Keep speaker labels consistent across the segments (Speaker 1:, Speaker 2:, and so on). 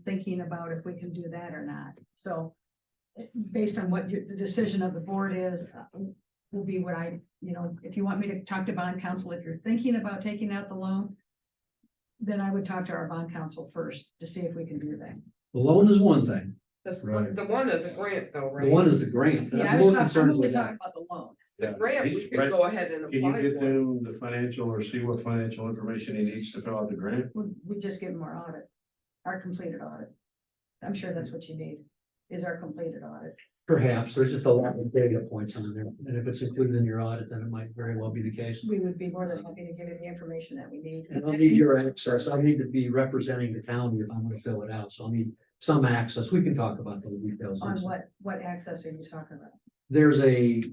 Speaker 1: thinking about if we can do that or not, so. eh, Based on what your, the decision of the board is, uh, will be what I, you know, if you want me to talk to bond counsel, if you're thinking about taking out the loan. Then I would talk to our bond counsel first to see if we can do that.
Speaker 2: The loan is one thing,
Speaker 3: This,
Speaker 4: Right.
Speaker 3: the one is a grant though,
Speaker 2: the
Speaker 3: right?
Speaker 2: one is the grant,
Speaker 1: Yeah,
Speaker 2: I'm
Speaker 1: I was
Speaker 2: more
Speaker 1: talking, I'm
Speaker 2: concerned
Speaker 1: only
Speaker 2: with that.
Speaker 1: talking about the loan.
Speaker 3: The grant, we
Speaker 4: Right.
Speaker 3: could go ahead and
Speaker 4: Can you
Speaker 3: apply
Speaker 4: get
Speaker 3: for.
Speaker 4: them the financial or see what financial information he needs to fill out the grant?
Speaker 1: We, we just give them our audit, our completed audit. I'm sure that's what you need, is our completed audit.
Speaker 2: Perhaps, there's just a lot of data points on there, and if it's included in your audit, then it might very well be the case.
Speaker 1: We would be more than happy to give you the information that we need.
Speaker 2: And I'll need your access, I need to be representing the county if I'm gonna fill it out, so I need some access, we can talk about those details.
Speaker 1: On what, what access are you talking about?
Speaker 2: There's a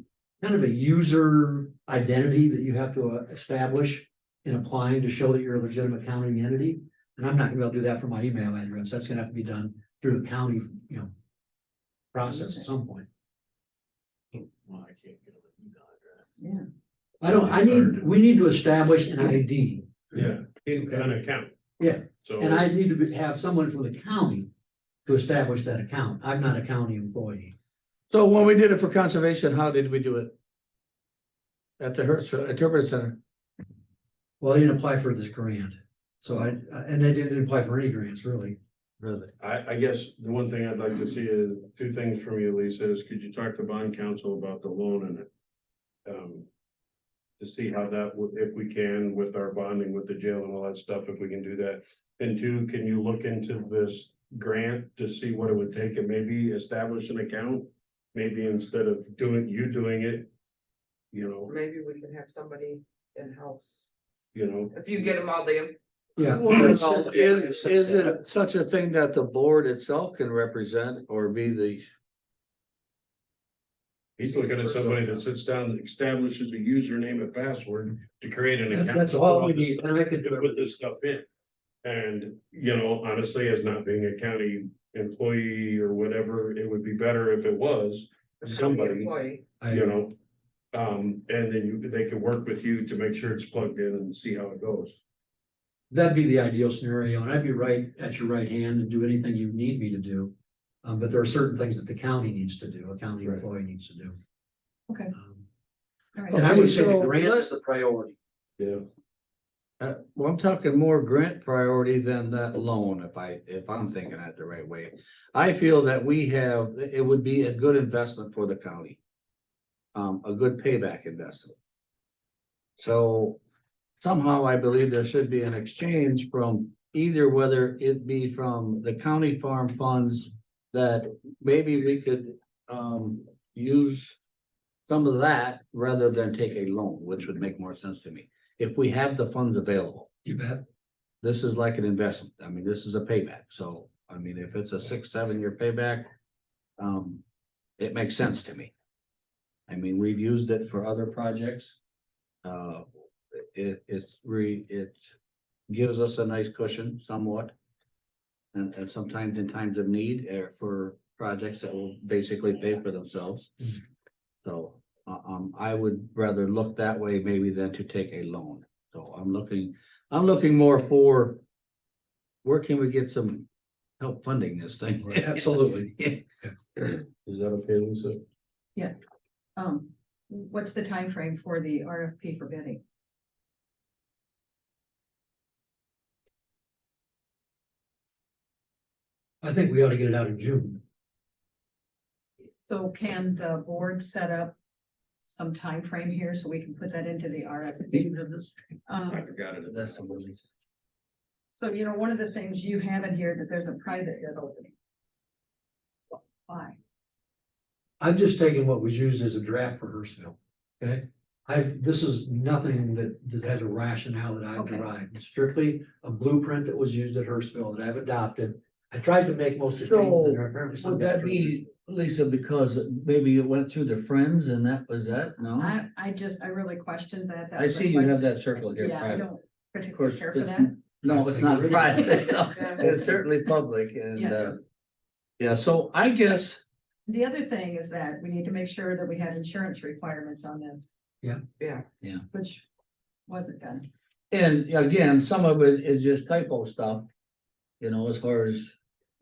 Speaker 2: kind of a user identity that you have to uh, establish in applying to show that you're a legitimate county entity. And I'm not gonna be able to do that for my email address, that's gonna have to be done through the county, you know, process at some point.
Speaker 4: Well, I can't get an email address.
Speaker 1: Yeah.
Speaker 2: I don't, I need, we need to establish an ID.
Speaker 4: Yeah, in an account.
Speaker 2: Yeah.
Speaker 4: So.
Speaker 2: And I need to be- have someone from the county to establish that account. I'm not a county employee.
Speaker 5: So when we did it for conservation, how did we do it? At the Hertz uh, Interpretive Center,
Speaker 2: Well, they didn't apply for this grant. So I, and they didn't apply for any grants, really.
Speaker 5: really?
Speaker 4: I, I guess the one thing I'd like to see is, two things from you, Lisa, is could you talk to bond counsel about the loan and it? Um, to see how that, would if we can with our bonding with the jail and all that stuff, if we can do that. And two, can you look into this grant to see what it would take and maybe establish an account? Maybe instead of doing, you doing it, you know,
Speaker 3: Maybe we can have somebody in-house.
Speaker 4: you know,
Speaker 3: If you get them all the.
Speaker 2: Yeah.
Speaker 3: Well,
Speaker 5: Is,
Speaker 3: no,
Speaker 5: is is it such a thing that the board itself can represent or be the?
Speaker 4: he's looking at somebody that sits down and establishes a username and password to create an account.
Speaker 2: That's all we need. And I could
Speaker 4: to
Speaker 2: do
Speaker 4: put
Speaker 2: it.
Speaker 4: this stuff in. And, you know, honestly, as not being a county employee or whatever, it would be better if it was, Somebody.
Speaker 3: Employee.
Speaker 2: I-
Speaker 4: you know. Um, and then you, they can work with you to make sure it's plugged in and see how it goes.
Speaker 2: That'd be the ideal scenario, and I'd be right at your right hand and do anything you need me to do. Um, but there are certain things that the county needs to do, a county
Speaker 4: Right.
Speaker 2: employee needs to do.
Speaker 1: Okay.
Speaker 2: Um,
Speaker 1: All right.
Speaker 2: And I would say
Speaker 5: Okay,
Speaker 2: the
Speaker 5: so
Speaker 2: grant
Speaker 5: let's-
Speaker 2: is the priority.
Speaker 4: Yeah.
Speaker 5: Uh, well, I'm talking more grant priority than that loan, if I, if I'm thinking that the right way. I feel that we have, it would be a good investment for the county. Um, a good payback investment. So somehow I believe there should be an exchange from either whether it be from the county farm funds. That maybe we could um use some of that rather than take a loan, which would make more sense to me if we have the funds available,
Speaker 2: You bet.
Speaker 5: this is like an investment. I mean, this is a payback. So, I mean, if it's a six, seven year payback, um, it makes sense to me. I mean, we've used it for other projects. Uh, it, it's re, it gives us a nice cushion somewhat. And, and sometimes in times of need, eh, for projects that will basically pay for themselves.
Speaker 2: Mhm.
Speaker 5: So, uh, um, I would rather look that way maybe than to take a loan. So I'm looking, I'm looking more for where can we get some help funding this thing?
Speaker 2: Absolutely.
Speaker 4: Is that okay, Lisa?
Speaker 1: Um, what's the time frame for the RFP for bidding?
Speaker 2: I think we ought to get it out in June.
Speaker 1: So can the board set up some time frame here so we can put that into the RFP?
Speaker 4: I
Speaker 1: Um,
Speaker 4: forgot it.
Speaker 5: That's amazing.
Speaker 1: so you know, one of the things you have in here that there's a private bid opening. Why?
Speaker 2: I've just taken what was used as a draft for Hurstville, okay? I, this is nothing that, that has a rationale that I've
Speaker 1: Okay.
Speaker 2: derived, strictly a blueprint that was used at Hurstville that I've adopted. I tried to make most of the changes that are apparently.
Speaker 5: Would that be, Lisa, because maybe it went through their friends and that was that? No?
Speaker 1: I, I just, I really questioned that. That
Speaker 5: I
Speaker 1: was
Speaker 5: see you
Speaker 1: like-
Speaker 5: have that circle here.
Speaker 1: Yeah, I
Speaker 5: private.
Speaker 1: don't
Speaker 5: Of
Speaker 1: particularly
Speaker 5: course,
Speaker 1: care for
Speaker 5: it's,
Speaker 1: that.
Speaker 5: no, it's not private. No, It's certainly public and,
Speaker 1: Yes.
Speaker 5: uh, yeah, so I guess,
Speaker 1: The other thing is that we need to make sure that we have insurance requirements on this.
Speaker 2: Yeah.
Speaker 3: Yeah.
Speaker 5: Yeah.
Speaker 1: Which wasn't done.
Speaker 5: and again, some of it is just typo stuff. You know, as far as